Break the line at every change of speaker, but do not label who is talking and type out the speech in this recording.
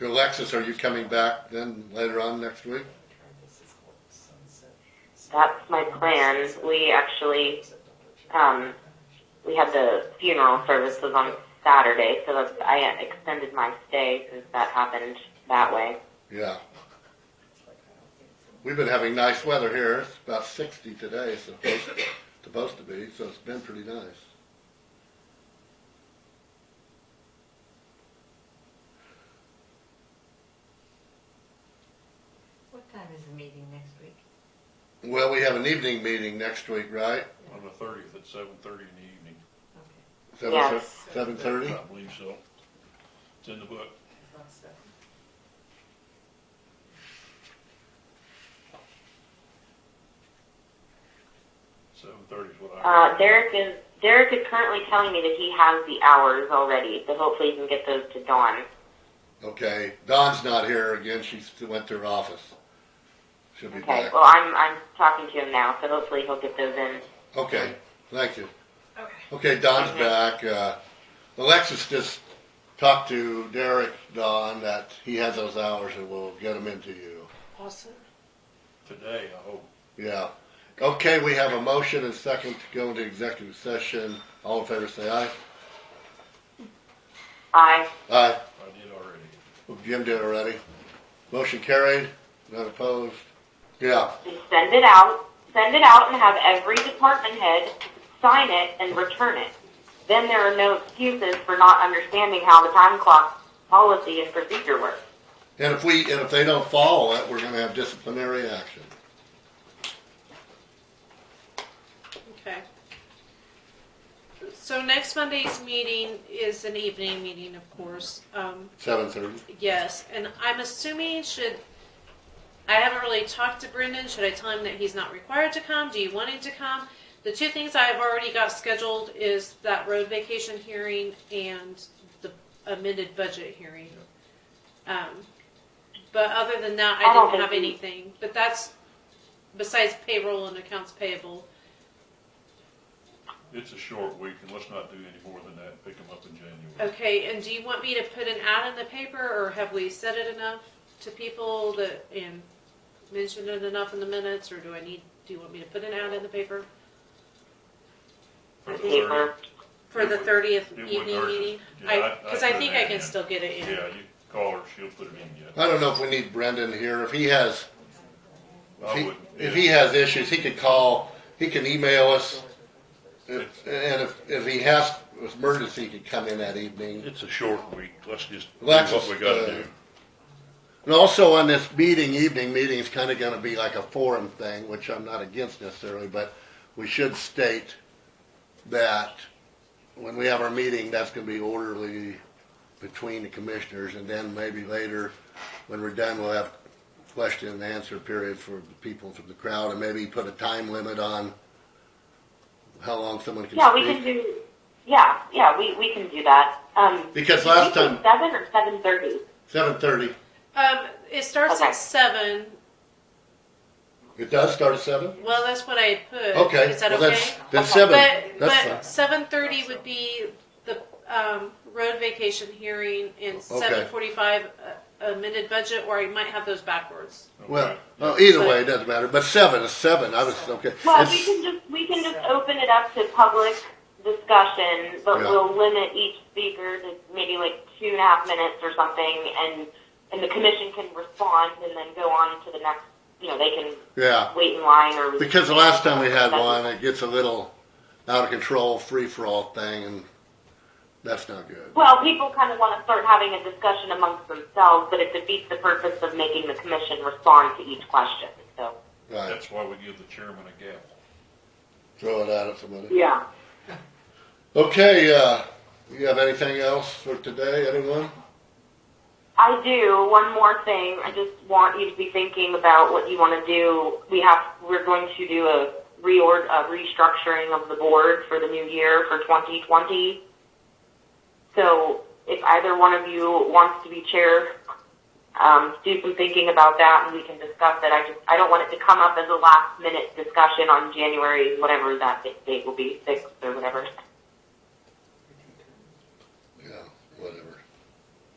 Alexis, are you coming back then later on next week?
That's my plan. We actually, um, we had the funeral services on Saturday, so that's, I extended my stay since that happened that way.
Yeah. We've been having nice weather here. It's about 60 today, it's supposed, supposed to be, so it's been pretty nice.
What time is the meeting next week?
Well, we have an evening meeting next week, right?
On the thirtieth at seven thirty in the evening.
Okay.
Seven thir-
Yes.
7:30?
I believe so. It's in the book. Seven thirty is what I.
Uh, Derek is, Derek is currently telling me that he has the hours already, so hopefully he can get those to Dawn.
Okay. Dawn's not here again. She went to her office. She'll be
Okay,
back.
well, I'm, I'm talking to him now, so hopefully he'll get those in.
Okay, thank you.
Okay.
Okay, Don's
Okay.
back. Uh, Alexis just talked to Derek, Don, that he has those hours and we'll get them into you.
Awesome.
Today, I hope.
Yeah. Okay, we have a motion and second to go into executive session. All in favor, say aye.
Aye.
Aye.
I did already.
Well, Jim did already. Motion carried. Not opposed. Yeah.
and send it out, send it out and have every department head sign it and return it. Then there are no excuses for not understanding how the time clock policy and procedure works.
And if we, and if they don't follow it, we're gonna have disciplinary action.
Okay. So next Monday's meeting is an evening meeting, of course. Um,
Seven thirty.
yes, and I'm assuming should, I haven't really talked to Brendan. Should I tell him that he's not required to come? Do you want him to come? The two things I've already got scheduled is that road vacation hearing and the amended budget hearing. Um, but other than that,
I
I
don't
didn't have
think he-
anything. But that's besides payroll and accounts payable.
It's a short week and let's not do any more than that. Pick them up in January.
Okay, and do you want me to put an ad in the paper, or have we said it enough to people that, and mentioned it enough in the minutes, or do I need, do you want me to put an ad in the paper
For the
Paper.
30th.
for the thirtieth
It would
evening
hurt.
meeting?
Yeah,
I,
I-
cause
I
I
put
think
an
I
ad in.
can still get it in.
Yeah, you call her, she'll put it in yet.
I don't know if we need Brendan here. If he has, if
I
he,
would,
if
yeah.
he has issues, he could call, he can email us. If-
It's-
And if, if he has, if emergency, he could come in that evening.
It's a short week. Let's just do
Let's
what we gotta
just, uh,
do.
And also on this meeting, evening meeting is kinda gonna be like a forum thing, which I'm not against necessarily, but we should state that when we have our meeting, that's gonna be orderly between the commissioners, and then maybe later, when we're done, we'll have question and answer period for the people from the crowd, and maybe put a time limit on how long someone can
Yeah, we can
speak.
do, yeah, yeah, we, we can do that. Um,
Because
did we
last
say
time-
Seven or seven thirty?
Seven thirty.
Um, it starts
Okay.
at seven,
It does start at seven?
well, that's what I had put.
Okay.
Is that
well,
okay?
that's- Then seven,
But,
that's
but seven thirty would be the, um, road vacation hearing, and seven forty-five, uh, amended budget, or I might have those backwards.
fine. Well,
Okay.
well, either way, it doesn't matter, but seven is seven, I was, okay.
Well, we
It's-
can just, we can just open it up to public discussion, but
Yeah.
we'll limit each speaker to maybe like two and a half minutes or something, and, and the commission can respond and then go on to the next, you know, they can
Yeah,
wait in line or
because the last time we had one, it gets a little out of control, free-for-all thing, and that's not good.
Well, people kind of want to start having a discussion amongst themselves, but it defeats the purpose of making the commission respond to each question. So
Right,
That's why we give the chairman a gavel.
throw it out at somebody.
yeah,
Okay, uh, you have anything else for today, anyone?
I do one more thing. I just want you to be thinking about what you want to do. We have we're going to do a reord a restructuring of the board for the new year for 2020. So if either one of you wants to be chair, um, do some thinking about that, and we can discuss it. I just I don't want it to come up as a last minute discussion on January whatever that date will be sixth or whatever.